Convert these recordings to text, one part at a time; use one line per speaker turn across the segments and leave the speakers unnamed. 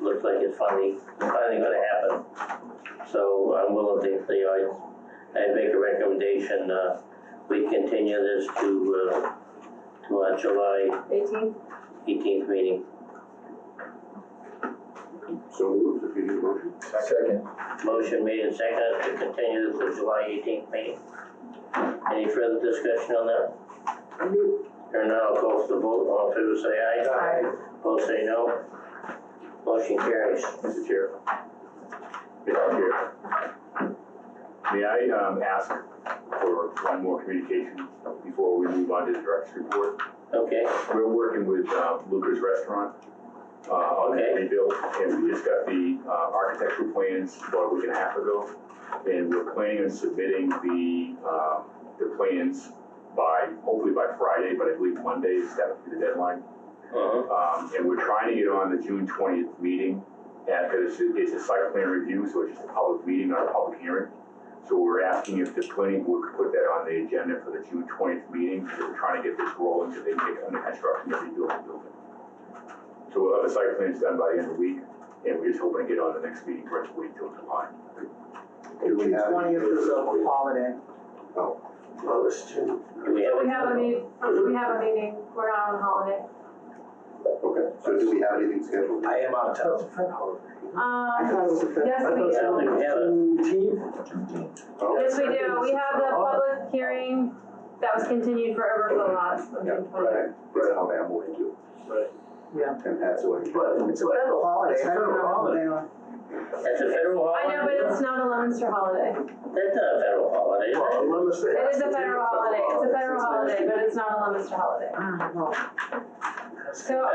looks like it's finally, finally gonna happen. So I'm willing to, you know, I, I'd make a recommendation, uh, we continue this to, uh, to our July
Eighteenth,
eighteenth meeting.
So moved, if you need a motion.
Second.
Motion made and seconded to continue this to July eighteenth meeting. Any further discussion on that? Here now, I'll call for the vote, all in favor say aye.
Aye.
Opposed say no. Motion carries.
Mr. Chair. Mr. Chair. May I, um, ask for one more communication before we move on to the director's report?
Okay,
We're working with, uh, Luca's Restaurant, uh, on the
Okay.
rebuild, and we just got the, uh, architectural plans about a week and a half ago. And we're planning on submitting the, uh, the plans by, hopefully by Friday, but I believe Monday is definitely the deadline.
uh-huh,
Um, and we're trying to get on the June twentieth meeting, and, cause it's, it's a site plan review, so it's just a public meeting, not a public hearing. So we're asking if the planning board could put that on the agenda for the June twentieth meeting, because we're trying to get this rolling, so they can get under construction and rebuild the building. So we'll have the site plans done by the end of the week, and we're just hoping to get on the next meeting, first week till July.
Do we have-
Twentieth is a holiday.
Oh, it's June.
do we have?
we have a meeting, we have a meeting, we're not on holiday.
Okay, so do we have anything scheduled?
I am out of
I thought it
Um,
was a fifth.
yes, we
I don't
do,
think we have it.
Juneteenth?
Oh,
yes, we do, we have the public hearing that was continued for overflow lots on
Yeah,
June twentieth.
right, that's how I'm going to.
Right.
Yeah.
And that's what.
But it's a federal holiday.
It's federal holiday on.
That's a federal
I
holiday?
know, but it's not a Leominster holiday.
That's not a federal holiday, is it?
Well, unless they.
It is
ask
a
to do
federal holiday, it's a federal holiday, but it's not a Leominster holiday.
Ah, no.
So,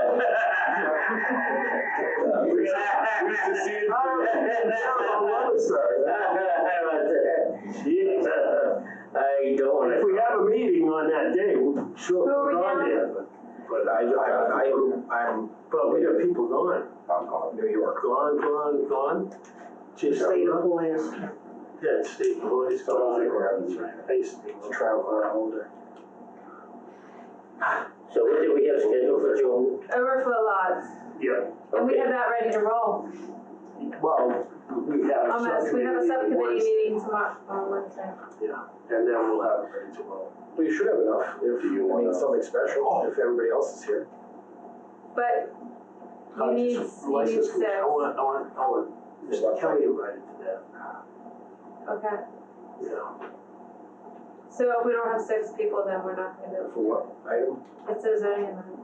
Who's to see it? I love it, sir.
I don't wanna.
If we have a meeting on that day, we'll sure
Who are
put
we
it on
down?
there, but. But I, I, I, I'm, but we got people gone.
I'm calling.
New York. Gone, gone, gone. Just.
State
uh,
employees.
Yeah, state employees.
So I don't think we're having this.
I used to travel around older.
So what did we have scheduled for June?
overflow lots,
Yeah.
and we
Okay.
have that ready to roll.
Well, we have.
Almost, Oh, we have a subcommittee meeting tomorrow, on Wednesday.
Yeah, and then we'll have it ready tomorrow.
We should have enough if
Do you
you
wanna-
need something
Oh.
special, if everybody else is here.
But you need, you need
License,
six,
I want, I want, I want, Mr. Kelly invited to that,
okay.
you know.
So if we don't have six people, then we're not gonna do it.
For what item?
It says zoning amendment.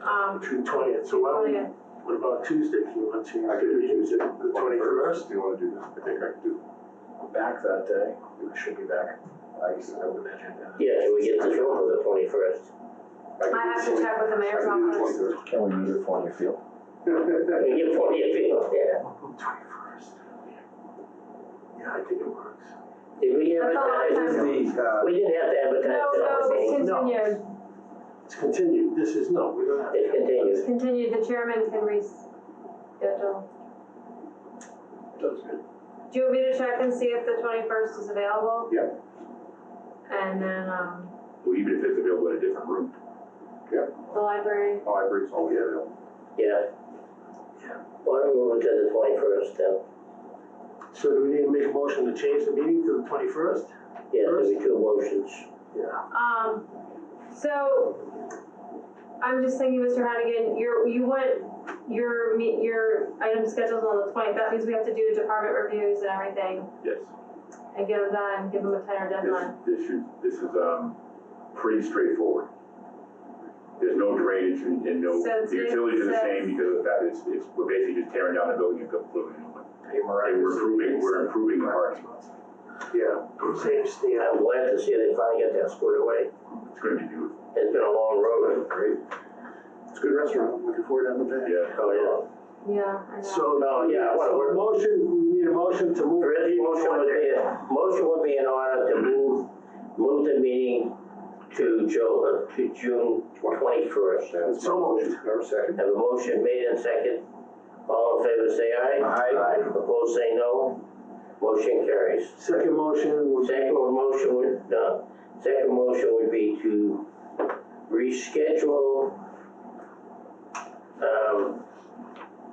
Um,
June twentieth, so why don't we,
twentieth,
what about Tuesday, if you want to?
I could do Tuesday.
The twenty-first?
Do you wanna do that? I think I can do.
I'm Back that day, we should be back. I guess I would imagine.
Yeah, can we get this over the twenty-first?
could
I have
do
to
the
check with the mayor's office.
20th.
Can we meet at Fournier Field?
I
We get forty if we don't, yeah.
Twenty-first. Yeah, I think it works.
Did we
That's a lot of
advertise?
time.
The,
We didn't have to advertise
No,
the
no,
whole
it's
thing.
No.
continued,
It's continued, this is, no, we don't have.
It continues.
it's continued, the chairman can reschedule.
That's good.
Do you want me to check and see if the twenty-first is available?
Yeah.
And then, um,
Well, even if it's available in a different room.
the library,
Oh, I bring, oh, yeah,
Yeah.
Yeah.
Why don't we move it to the twenty-first then?
So do we need to make a motion to change the meeting to the twenty-first?
Yeah, there'll be two motions.
Yeah.
um, so, I'm just thinking, Mr. Hannigan, you're, you want your meet, your item scheduled on the twentieth, that means we have to do department reviews and everything,
Yes.
and get them done, give them a tighter
This,
deadline.
this should, this is, um, pretty straightforward. There's no drainage and, and no,
So it's
the utilities are the
basically-
same because of that, it's, it's, we're basically just tearing down the building and building a new one.
hey, Mariah.
And we're improving, we're improving the parking,
Yeah, same stand.
I'm glad to see they finally got that squared away.
it's gonna be beautiful,
It's been a long road.
Great.
It's a good restaurant, I'm looking forward to having it.
yeah.
Oh, yeah.
Yeah, I know.
So.
No, yeah, what-
So a motion, we need a motion to move.
First
the
motion would be, motion would be in order to move, move the meeting to Joe, uh, to June twenty-first.
That's my
So
motion. Our second.
Have a motion made and second. All in favor, say aye.
Aye.
Opposed, say no. Motion carries.
Second motion would.
Second motion would, uh, second motion would be to reschedule, um,